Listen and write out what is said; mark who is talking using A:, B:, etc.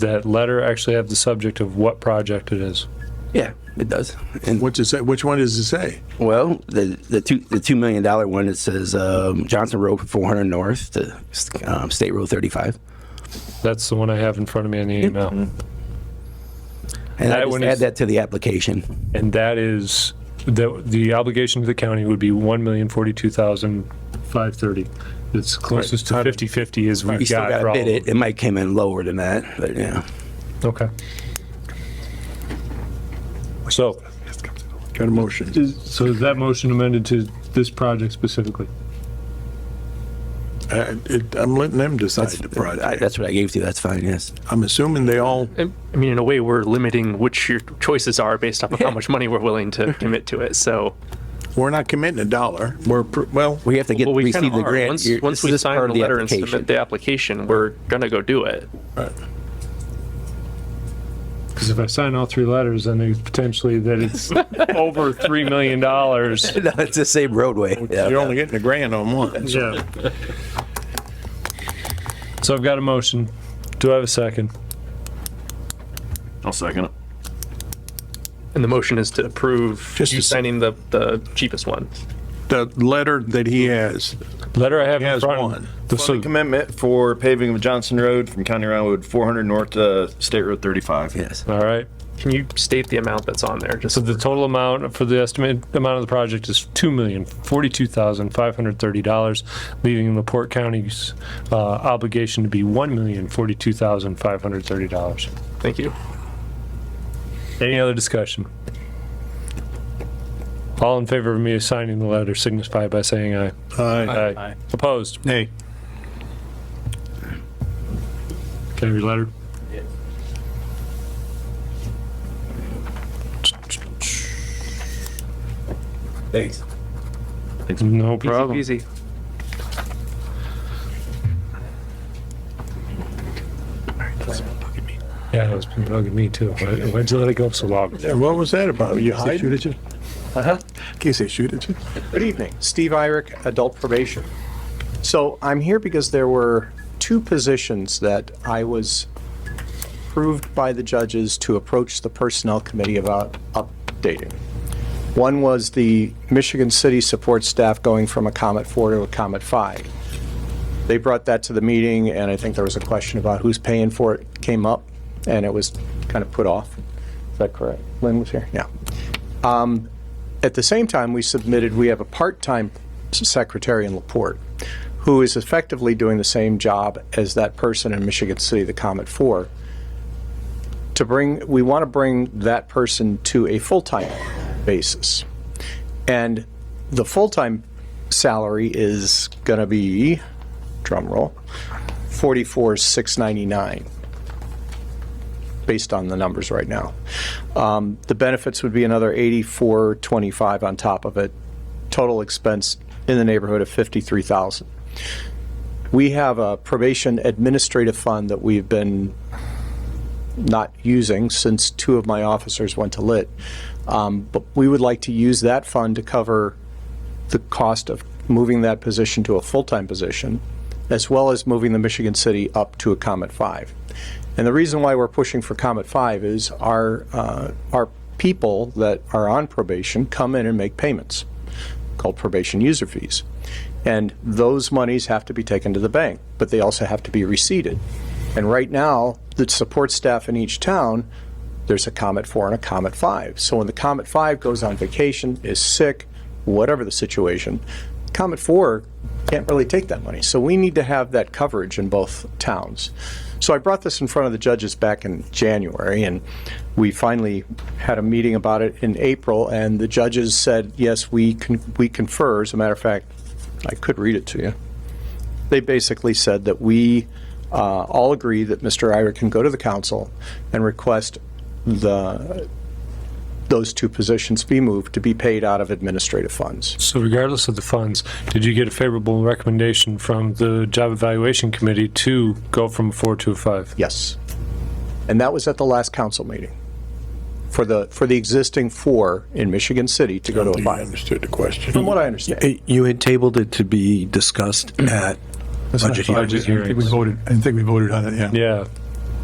A: that letter actually have the subject of what project it is?
B: Yeah, it does. And
C: What's it say? Which one does it say?
B: well, the the two the two million dollar one it says um, Johnson Road from 400 North to um, State Road 35.
A: That's the one I have in front of me in the
B: Mm-hmm.
A: email.
B: And
A: That
B: I
A: one
B: just
A: is-
B: add that to the application.
A: And that is, the, the obligation to the county would be one million forty-two thousand five thirty. It's closest to fifty-fifty is
B: You
A: we've
B: still
A: got.
B: got
A: for
B: to
A: all
B: bid
A: of
B: it. It might came in lower than that, but yeah.
A: them. Okay. So,
C: Got a motion?
A: is- so is that motion amended to this project specifically?
C: Uh, it- I'm letting them decide the
B: I,
C: project.
B: that's what I gave to you. That's fine. Yes.
C: I'm assuming they all,
D: I I mean, in a way, we're limiting which your choices are based off of how much money we're willing to commit to it. So,
C: we're not committing a dollar. We're, pr- well,
B: We have to get
D: well, we kind
B: receive
D: of
B: the
D: are.
B: grant.
D: once
B: You're-
D: once
B: this
D: we
B: is
D: sign
B: part
D: the
B: of
D: letter and submit the application, we're gonna go do it.
A: Because if I sign all three letters, then it's potentially that it's over $3 million.
B: no, it's the same roadway. Yeah.
C: you're only getting a grand on one. so-
A: Yeah. So I've got a motion. Do I have a second?
E: I'll second it.
D: And the motion is to approve
C: Just
D: you
C: a sec-
D: signing the, the cheapest one.
C: The letter that he has,
A: Letter I have
C: he
A: in
C: has
A: front of
C: one.
A: me. The- so-
E: Funding commitment for paving of Johnson Road from County Road 400 North to State Road 35.
B: Yes.
A: All right.
D: Can you state the amount that's on there? Just
A: So the total amount for the estimated amount of the project is $2,042,530, leaving LaPorte County's uh, obligation to be $1,042,530.
D: thank you.
A: Any other discussion? All in favor of me signing the letter signify by saying aye.
C: Uh,
A: Aye. Opposed?
C: Nay.
A: Can I read letter?
B: Thanks.
A: No
D: Easy
A: problem.
D: peasy.
A: Yeah, it's been bugging me too. Why- Why'd you let it go so long?
C: Yeah, What was that about? You hiding? Uh-huh. In case they shoot at you.
F: Good evening, Steve Irick, Adult Probation. So I'm here because there were two positions that I was approved by the judges to approach the Personnel Committee about updating. One was the Michigan City support staff going from a Comet 4 to a Comet 5. They brought that to the meeting, and I think there was a question about who's paying for it came up, and it was kind of put off. Is that correct? Lynn was here? Yeah. At the same time, we submitted, we have a part-time secretary in Laporte who is effectively doing the same job as that person in Michigan City, the Comet Four. To bring, we want to bring that person to a full-time basis. And the full-time salary is going to be, drum roll, forty-four, six ninety-nine, based on the numbers right now. Um, The benefits would be another eighty-four twenty-five on top of it. Total expense in the neighborhood of fifty-three thousand. We have a probation administrative fund that we've been not using since two of my officers went to lit. Um, But we would like to use that fund to cover the cost of moving that position to a full-time position, as well as moving the Michigan City up to a Comet 5. And the reason why we're pushing for Comet 5 is our, uh, our people that are on probation come in and make payments called probation user fees. And those monies have to be taken to the bank, but they also have to be receipted. And right now, the support staff in each town, there's a Comet 4 and a Comet 5. So when the Comet 5 goes on vacation, is sick, whatever the situation, Comet 4 can't really take that money. So we need to have that coverage in both towns. So I brought this in front of the judges back in January, and we finally had a meeting about it in April, and the judges said, yes, we con- we confer. As a matter of fact, I could read it to you. They basically said that we uh, all agree that Mr. Ira can go to the council and request the, those two positions be moved to be paid out of administrative funds.
A: So regardless of the funds, did you get a favorable recommendation from the job evaluation committee to go from a four to a five?
F: Yes. And that was at the last council meeting for the, for the existing four in Michigan City to go to a
C: I
F: five,
C: understood the question.
F: from what I understand.
G: Hey, You had tabled it to be discussed at budget hearing.
A: Budget hearings.
C: voted, I think we voted on it,
A: Yeah,